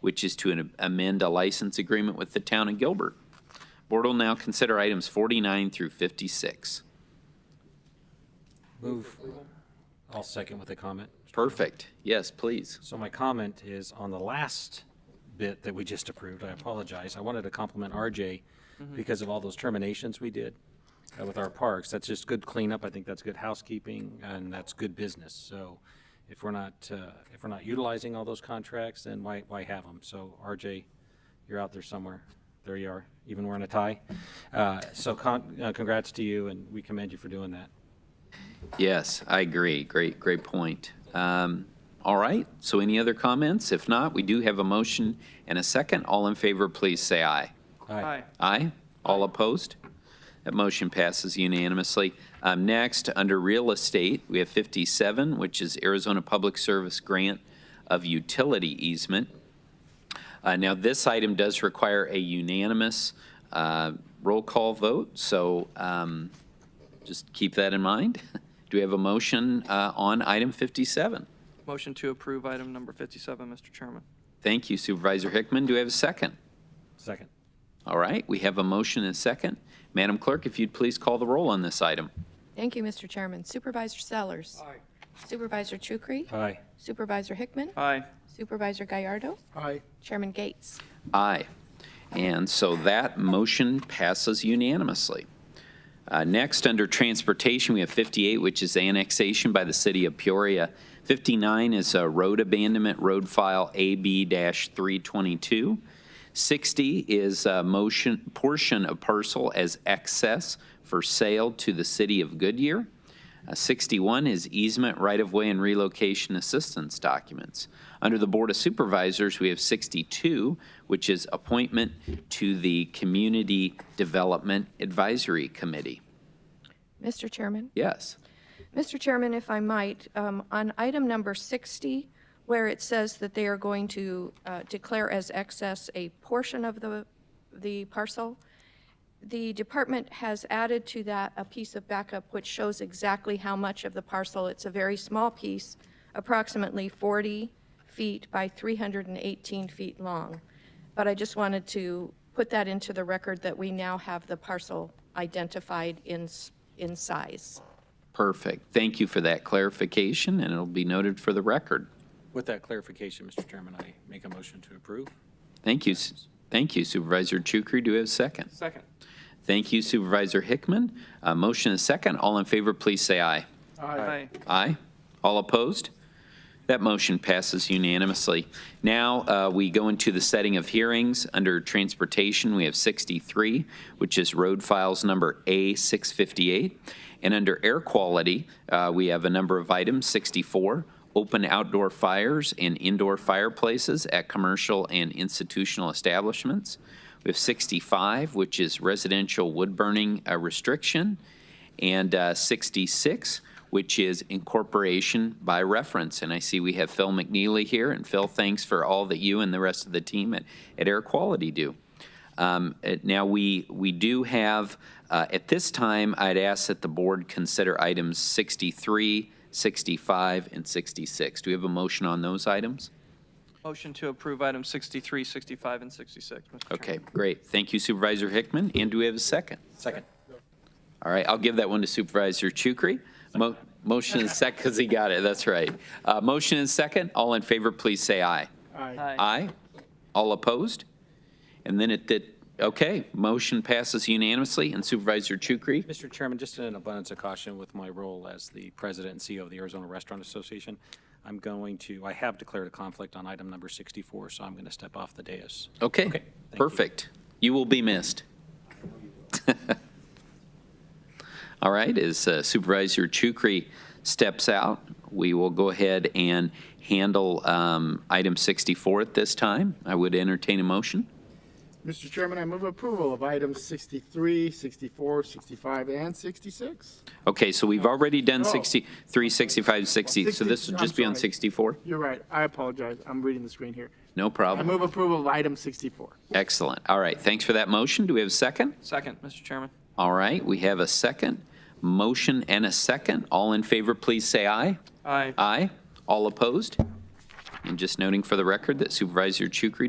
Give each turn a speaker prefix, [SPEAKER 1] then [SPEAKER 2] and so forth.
[SPEAKER 1] which is to amend a license agreement with the town of Gilbert. Board will now consider items 49 through 56.
[SPEAKER 2] Move. I'll second with a comment.
[SPEAKER 1] Perfect. Yes, please.
[SPEAKER 2] So my comment is on the last bit that we just approved, I apologize. I wanted to compliment RJ because of all those terminations we did uh, with our parks. That's just good cleanup. I think that's good housekeeping and that's good business. So if we're not, uh, if we're not utilizing all those contracts, then why, why have them? So RJ, you're out there somewhere. There you are, even wearing a tie. Uh, So con- uh, congrats to you and we commend you for doing that.
[SPEAKER 1] Yes, I agree. Great, great point. Um, All right, so any other comments? If not, we do have a motion and a second. All in favor, please say aye.
[SPEAKER 2] Aye.
[SPEAKER 1] Aye. All opposed? That motion passes unanimously. Um, Next, under real estate, we have 57, which is Arizona Public Service Grant of Utility Easement. Uh, Now, this item does require a unanimous uh, roll call vote, so um, just keep that in mind. Do we have a motion uh, on item 57?
[SPEAKER 3] Motion to approve item number 57, Mr. Chairman.
[SPEAKER 1] Thank you Supervisor Hickman. Do we have a second?
[SPEAKER 2] Second.
[SPEAKER 1] All right, we have a motion and a second. Madam Clerk, if you'd please call the roll on this item.
[SPEAKER 4] Thank you, Mr. Chairman. Supervisor Sellers. Aye. Supervisor Chukri.
[SPEAKER 2] Aye.
[SPEAKER 4] Supervisor Hickman.
[SPEAKER 3] Aye.
[SPEAKER 4] Supervisor Gallardo.
[SPEAKER 5] Aye.
[SPEAKER 4] Chairman Gates.
[SPEAKER 1] Aye. And so that motion passes unanimously. Uh, Next, under transportation, we have 58, which is annexation by the city of Peoria. 59 is a road abandonment, road file AB-322. 60 is a motion, portion of parcel as excess for sale to the city of Goodyear. Uh, 61 is easement, right-of-way, and relocation assistance documents. Under the Board of Supervisors, we have 62, which is appointment to the Community Development Advisory Committee.
[SPEAKER 4] Mr. Chairman.
[SPEAKER 1] Yes,
[SPEAKER 4] Mr. Chairman, if I might, um, on item number 60, where it says that they are going to uh, declare as excess a portion of the, the parcel, the department has added to that a piece of backup which shows exactly how much of the parcel. It's a very small piece, approximately 40 feet by 318 feet long. But I just wanted to put that into the record that we now have the parcel identified in, s- in size.
[SPEAKER 1] perfect. Thank you for that clarification, and it'll be noted for the record.
[SPEAKER 2] With that clarification, Mr. Chairman, I make a motion to approve.
[SPEAKER 1] Thank you, s- thank you Supervisor Chukri. Do we have a second?
[SPEAKER 3] Second.
[SPEAKER 1] Thank you Supervisor Hickman. Uh, Motion and second. All in favor, please say aye.
[SPEAKER 3] Aye.
[SPEAKER 1] Aye. All opposed? That motion passes unanimously. Now, uh, we go into the setting of hearings. Under Transportation, we have 63, which is Road Files Number A658. And under Air Quality, uh, we have a number of items, 64, open outdoor fires and indoor fireplaces at commercial and institutional establishments. We have 65, which is residential wood burning uh, restriction and uh, 66, which is incorporation by reference. And I see we have Phil McNeely here, and Phil, thanks for all that you and the rest of the team at, at Air Quality do. Um, it- Now, we, we do have, uh, at this time, I'd ask that the board consider items 63, 65, and 66. Do we have a motion on those items?
[SPEAKER 3] Motion to approve item 63, 65, and 66, Mr. Chairman.
[SPEAKER 1] Okay, great. Thank you Supervisor Hickman, and do we have a second?
[SPEAKER 2] Second.
[SPEAKER 1] All right, I'll give that one to Supervisor Chukri. Mo- Motion and second, because he got it, that's right. Uh, Motion and second, all in favor, please say aye.
[SPEAKER 5] Aye.
[SPEAKER 3] Aye.
[SPEAKER 1] Aye. All opposed? And then it did, okay, motion passes unanimously, and Supervisor Chukri?
[SPEAKER 2] Mr. Chairman, just in an abundance of caution with my role as the president and CEO of the Arizona Restaurant Association, I'm going to, I have declared a conflict on item number 64, so I'm going to step off the dais.
[SPEAKER 1] Okay,
[SPEAKER 2] thank you.
[SPEAKER 1] perfect. You will be missed. All right, as uh, Supervisor Chukri steps out, we will go ahead and handle um, item 64 at this time. I would entertain a motion.
[SPEAKER 5] Mr. Chairman, I move approval of items 63, 64, 65, and 66.
[SPEAKER 1] Okay, so we've already done
[SPEAKER 5] No.
[SPEAKER 1] 63, 65, 60, so
[SPEAKER 5] 60
[SPEAKER 1] this will
[SPEAKER 5] Oh. I'm
[SPEAKER 1] just be on
[SPEAKER 5] sorry.
[SPEAKER 1] 64?
[SPEAKER 5] You're right. I apologize. I'm reading the screen here.
[SPEAKER 1] No
[SPEAKER 5] I
[SPEAKER 1] problem.
[SPEAKER 5] move approval of item 64.
[SPEAKER 1] Excellent. All right, thanks for that motion. Do we have a second?
[SPEAKER 3] Second, Mr. Chairman.
[SPEAKER 1] All right, we have a second. Motion and a second. All in favor, please say aye.
[SPEAKER 3] Aye.
[SPEAKER 1] Aye. All opposed? And just noting for the record that Supervisor Chukri